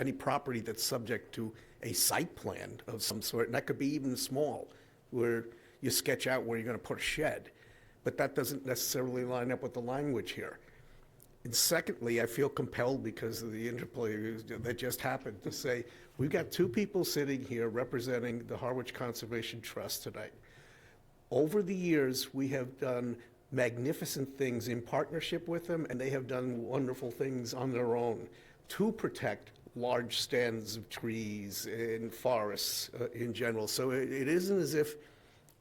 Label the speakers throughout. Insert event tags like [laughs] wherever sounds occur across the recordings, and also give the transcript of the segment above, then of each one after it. Speaker 1: any property that's subject to a site plan of some sort, and that could be even small, where you sketch out where you're going to put a shed. But that doesn't necessarily line up with the language here. And secondly, I feel compelled because of the interplay that just happened to say, we've got two people sitting here representing the Harwich Conservation Trust tonight. Over the years, we have done magnificent things in partnership with them, and they have done wonderful things on their own to protect large stands of trees and forests uh, in general. So it it isn't as if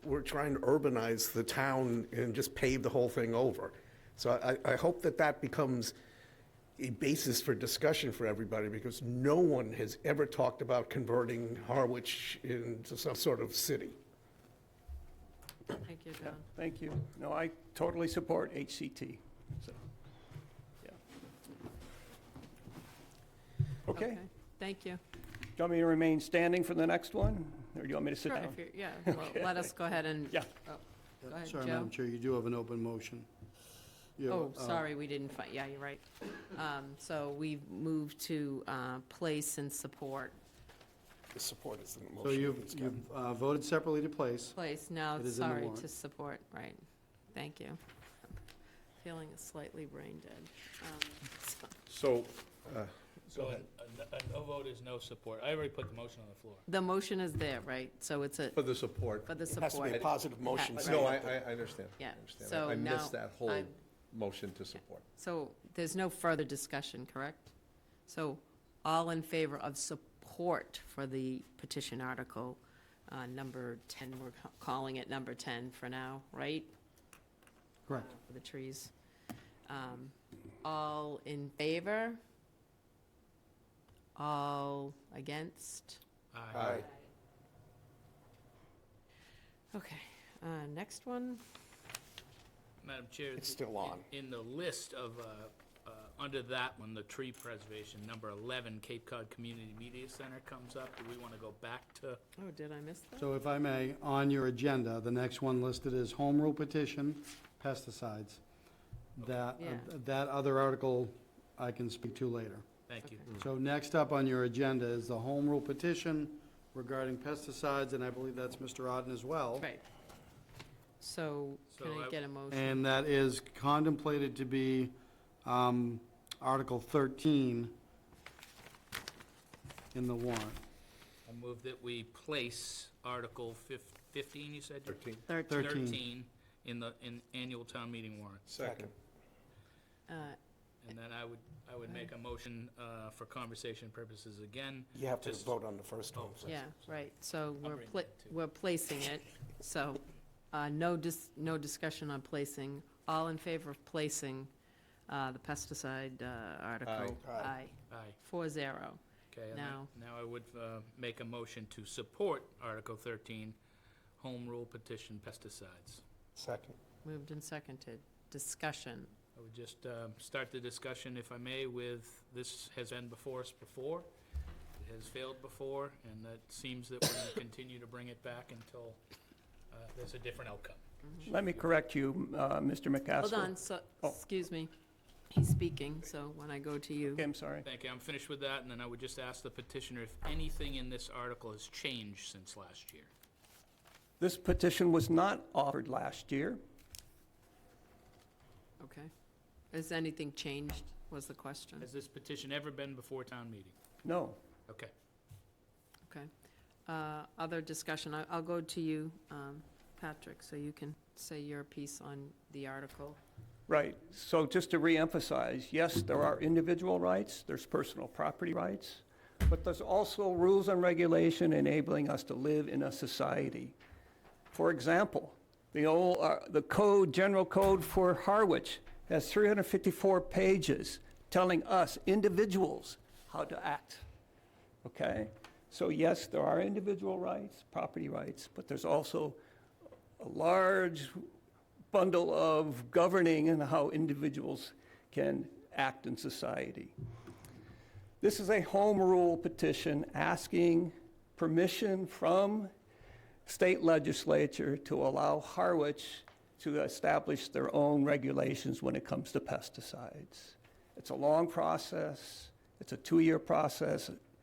Speaker 1: we're trying to urbanize the town and just pave the whole thing over. So I, I hope that that becomes a basis for discussion for everybody, because no one has ever talked about converting Harwich into some sort of city.
Speaker 2: Thank you, John.
Speaker 3: Thank you. No, I totally support HCT, so, yeah. Okay, do
Speaker 2: Thank you.
Speaker 3: you want me to remain standing for the next one, or do you want me to sit
Speaker 2: Sure,
Speaker 3: down?
Speaker 2: if you're- Yeah, well, let us go ahead and.
Speaker 3: [laughs] Yeah.
Speaker 2: oh, Go ahead,
Speaker 4: Sorry, Madam
Speaker 2: Joe.
Speaker 4: Chair, you do have an open motion. You have,
Speaker 2: Oh,
Speaker 4: uh,
Speaker 2: sorry, we didn't find, yeah, you're right. Um, So we move to uh, place and support.
Speaker 1: The support is in the
Speaker 4: So
Speaker 1: motion.
Speaker 4: you've,
Speaker 1: It's got-
Speaker 4: you've uh, voted separately to place.
Speaker 2: Place, now,
Speaker 4: It is in the
Speaker 2: sorry, to
Speaker 4: warrant.
Speaker 2: support, right. Thank you. Feeling slightly brain dead. Um, so-
Speaker 5: So,
Speaker 6: So a- a no vote is no support. I already put the motion on the floor.
Speaker 2: The motion is there, right? So it's a,
Speaker 5: for the support,
Speaker 2: for the
Speaker 1: It has to be a
Speaker 2: support.
Speaker 1: positive motion.
Speaker 2: Yeah.
Speaker 1: so
Speaker 5: no,
Speaker 1: you
Speaker 5: I,
Speaker 1: have to-
Speaker 5: I- I understand. I
Speaker 2: Yeah,
Speaker 5: understand.
Speaker 2: so
Speaker 5: I- I
Speaker 2: now
Speaker 5: missed that whole
Speaker 2: I'm-
Speaker 5: motion to support.
Speaker 2: So there's no further discussion, correct? So all in favor of support for the petition article, uh, number 10, we're ca- calling it number 10 for now, right?
Speaker 4: Correct.
Speaker 2: Uh, For the trees. Um, All in favor? All against?
Speaker 5: Aye.
Speaker 2: Okay, uh, next one?
Speaker 6: Madam Chair.
Speaker 1: It's
Speaker 6: th-
Speaker 1: still on.
Speaker 6: In in the list of, uh, uh, under that one, the tree preservation, number 11, Cape Cod Community Media Center comes up. Do we want to go back to?
Speaker 2: Oh, did I miss that?
Speaker 4: So if I may, on your agenda, the next one listed is home rule petition, pesticides. That, uh,
Speaker 2: Yeah.
Speaker 4: that other article I can speak to later.
Speaker 6: Thank you.
Speaker 4: So next up on your agenda is the home rule petition regarding pesticides, and I believe that's Mr. Oden as well.
Speaker 2: Right. So can
Speaker 6: So
Speaker 2: I
Speaker 6: I-
Speaker 2: get a motion?
Speaker 4: And that is contemplated to be um, Article 13 in the warrant.
Speaker 6: I move that we place Article fif- 15, you said?
Speaker 5: Thirteen.
Speaker 2: 13.
Speaker 4: 13.
Speaker 6: in the, in annual town meeting warrant.
Speaker 5: Second.
Speaker 2: Uh,
Speaker 6: And then I would, I would make a motion uh, for conversation purposes again.
Speaker 1: You have to
Speaker 6: Just-
Speaker 1: vote on the first one. first.
Speaker 2: Yeah, right, so we're,
Speaker 6: bring
Speaker 2: pla-
Speaker 6: that too.
Speaker 2: we're placing it, so, uh, no dis, no discussion on placing. All in favor of placing, uh, the pesticide, uh, article?
Speaker 1: Aye. Aye.
Speaker 2: Aye,
Speaker 6: Aye.
Speaker 2: four zero.
Speaker 6: Okay, and
Speaker 2: Now-
Speaker 6: now now I would uh, make a motion to support Article 13, home rule petition pesticides.
Speaker 1: Second.
Speaker 2: Moved and seconded. Discussion.
Speaker 6: I would just um, start the discussion, if I may, with, this has been before us before, it has failed before, and it seems that we're going to [coughs] continue to bring it back until uh, there's a different outcome.
Speaker 3: Let me correct you, uh, Mr. McCaskill.
Speaker 2: Hold on, so,
Speaker 3: Oh.
Speaker 2: excuse me, he's speaking, so when I go to you.
Speaker 3: Okay, I'm sorry.
Speaker 6: Thank you, I'm finished with that, and then I would just ask the petitioner if anything in this article has changed since last year.
Speaker 3: This petition was not offered last year.
Speaker 2: Okay. Has anything changed, was the question?
Speaker 6: Has this petition ever been before town meeting?
Speaker 3: No.
Speaker 6: Okay.
Speaker 2: Okay. Uh, Other discussion, I- I'll go to you, um, Patrick, so you can say your piece on the article.
Speaker 3: Right, so just to reemphasize, yes, there are individual rights, there's personal property rights, but there's also rules and regulation enabling us to live in a society. For example, the old, uh, the code, general code for Harwich has 354 pages telling us individuals how to act. Okay? So yes, there are individual rights, property rights, but there's also a large bundle of governing and how individuals can act in society. This is a home rule petition asking permission from state legislature to allow Harwich to establish their own regulations when it comes to pesticides. It's a long process. It's a two-year process.